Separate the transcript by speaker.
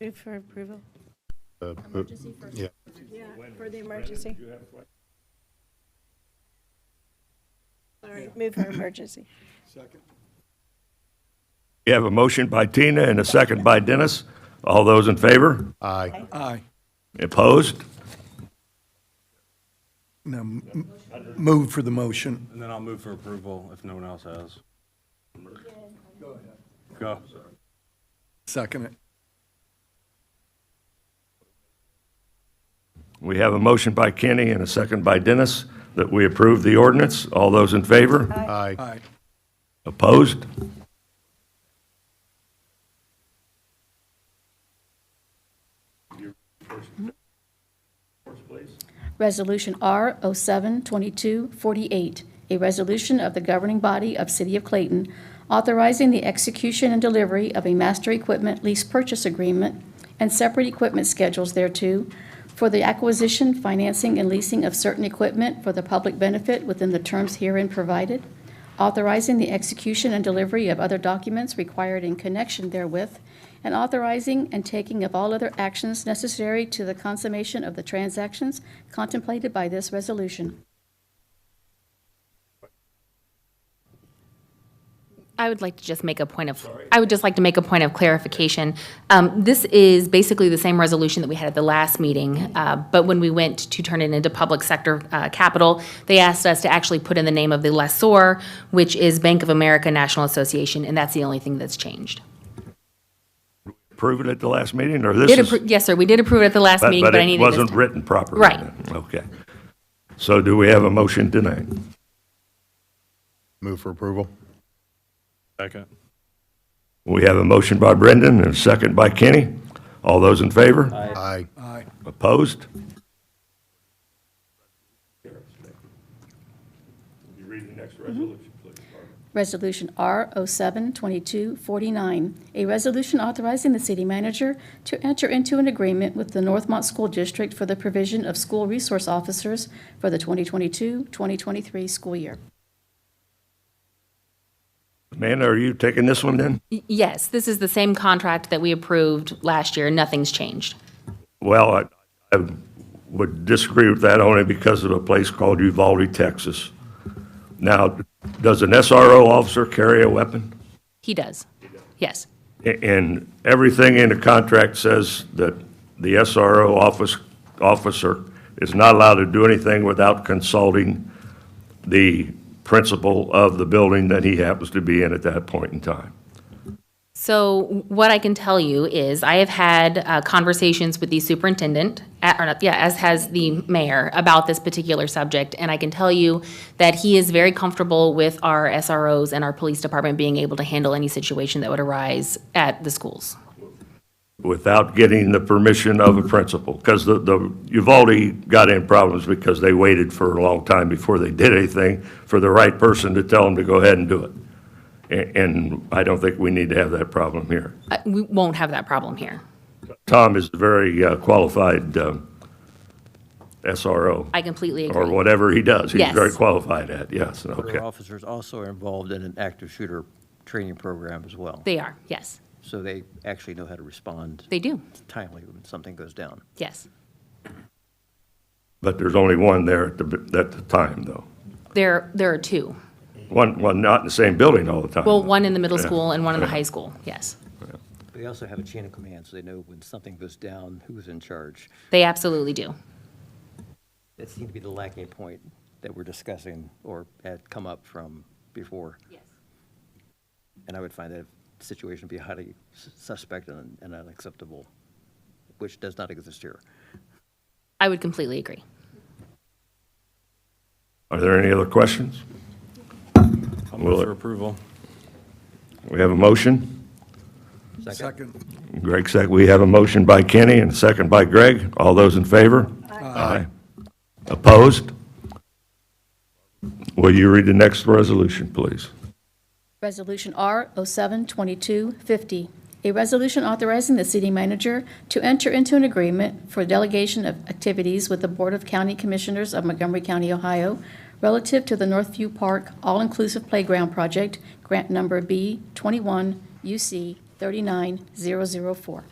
Speaker 1: Move for approval.
Speaker 2: Uh, but- Yeah,
Speaker 1: Yeah, for the emergency. All right, move for emergency.
Speaker 3: We have a motion by Tina and a second by Dennis. All those in favor?
Speaker 2: aye.
Speaker 4: Aye.
Speaker 3: Opposed?
Speaker 4: No, m- m- move for the motion.
Speaker 5: And then I'll move for approval if no one else has. Go ahead. Go.
Speaker 4: Second it.
Speaker 3: We have a motion by Kenny and a second by Dennis that we approve the ordinance. All those in favor?
Speaker 2: Aye.
Speaker 4: Aye.
Speaker 3: Opposed?
Speaker 6: Resolution R 07-2248, a resolution of the governing body of City of Clayton authorizing the execution and delivery of a master equipment lease purchase agreement and separate equipment schedules thereto for the acquisition, financing, and leasing of certain equipment for the public benefit within the terms herein provided, authorizing the execution and delivery of other documents required in connection therewith, and authorizing and taking of all other actions necessary to the consummation of the transactions contemplated by this resolution.
Speaker 7: I would like to just make a point of, I would just like to make a point of clarification. Um, This is basically the same resolution that we had at the last meeting, uh, but when we went to turn it into public sector uh, capital, they asked us to actually put in the name of the lessor, which is Bank of America National Association, and that's the only thing that's changed.
Speaker 3: Approved it at the last meeting, or this
Speaker 7: Did
Speaker 3: is?
Speaker 7: appro- Yes, sir, we did approve it at the last meeting, but I
Speaker 3: it
Speaker 7: needed this
Speaker 3: wasn't
Speaker 7: time.
Speaker 3: written properly.
Speaker 7: Right.
Speaker 3: Okay. So do we have a motion tonight?
Speaker 2: Move for approval.
Speaker 5: Second.
Speaker 3: We have a motion by Brendan and a second by Kenny. All those in favor?
Speaker 2: Aye.
Speaker 4: Aye.
Speaker 3: Opposed?
Speaker 6: Resolution R 07-2249, a resolution authorizing the city manager to enter into an agreement with the Northmont School District for the provision of school resource officers for the 2022-2023 school year.
Speaker 3: Amanda, are you taking this one then?
Speaker 7: Y- Yes, this is the same contract that we approved last year, nothing's changed.
Speaker 3: Well, I, I would disagree with that only because of a place called Uvalde, Texas. Now, does an SRO officer carry a weapon?
Speaker 7: He does, yes.
Speaker 3: A- And everything in the contract says that the SRO office, officer is not allowed to do anything without consulting the principal of the building that he happens to be in at that point in time.
Speaker 7: So what I can tell you is I have had uh, conversations with the superintendent, uh, or not- yeah, as has the mayor, about this particular subject. And I can tell you that he is very comfortable with our SROs and our police department being able to handle any situation that would arise at the schools.
Speaker 3: without getting the permission of a principal. Because the, the, you've already got in problems because they waited for a long time before they did anything for the right person to tell them to go ahead and do it. And, and I don't think we need to have that problem here.
Speaker 7: Uh, We won't have that problem here.
Speaker 3: Tom is a very uh, qualified um, SRO,
Speaker 7: I completely
Speaker 3: or
Speaker 7: agree.
Speaker 3: whatever he does. He's
Speaker 7: Yes.
Speaker 3: very qualified at, yes, okay.
Speaker 8: Our officers also are involved in an active shooter training program as well.
Speaker 7: They are, yes.
Speaker 8: So they actually know how to respond
Speaker 7: They do,
Speaker 8: timely when something goes down.
Speaker 7: yes.
Speaker 3: But there's only one there at the, at the time, though.
Speaker 7: There, there are two.
Speaker 3: One, one not in the same building all the time.
Speaker 7: Well,
Speaker 3: though.
Speaker 7: one in the middle
Speaker 3: Mm-hmm. Yeah.
Speaker 7: school and one in the
Speaker 3: Yeah.
Speaker 7: high school, yes.
Speaker 8: They also have a chain of command, so they know when something goes down, who's in charge.
Speaker 7: They absolutely do.
Speaker 8: That seemed to be the lacking point that we're discussing or had come up from before.
Speaker 7: Yes.
Speaker 8: And I would find that situation to be highly sus- suspect and and unacceptable, which does not exist here.
Speaker 7: I would completely agree.
Speaker 3: Are there any other questions?
Speaker 5: I'll
Speaker 3: Will
Speaker 5: move
Speaker 3: it-
Speaker 5: for approval.
Speaker 3: We have a motion?
Speaker 4: Second.
Speaker 3: Greg, sec, we have a motion by Kenny and a second by Greg. All those in favor? Aye. Opposed? Will you read the next resolution, please?
Speaker 6: Resolution R 07-2250, a resolution authorizing the city manager to enter into an agreement for delegation of activities with the Board of County Commissioners of Montgomery County, Ohio, relative to the Northview Park All-Inclusive Playground Project, grant number B 21 UC 39004.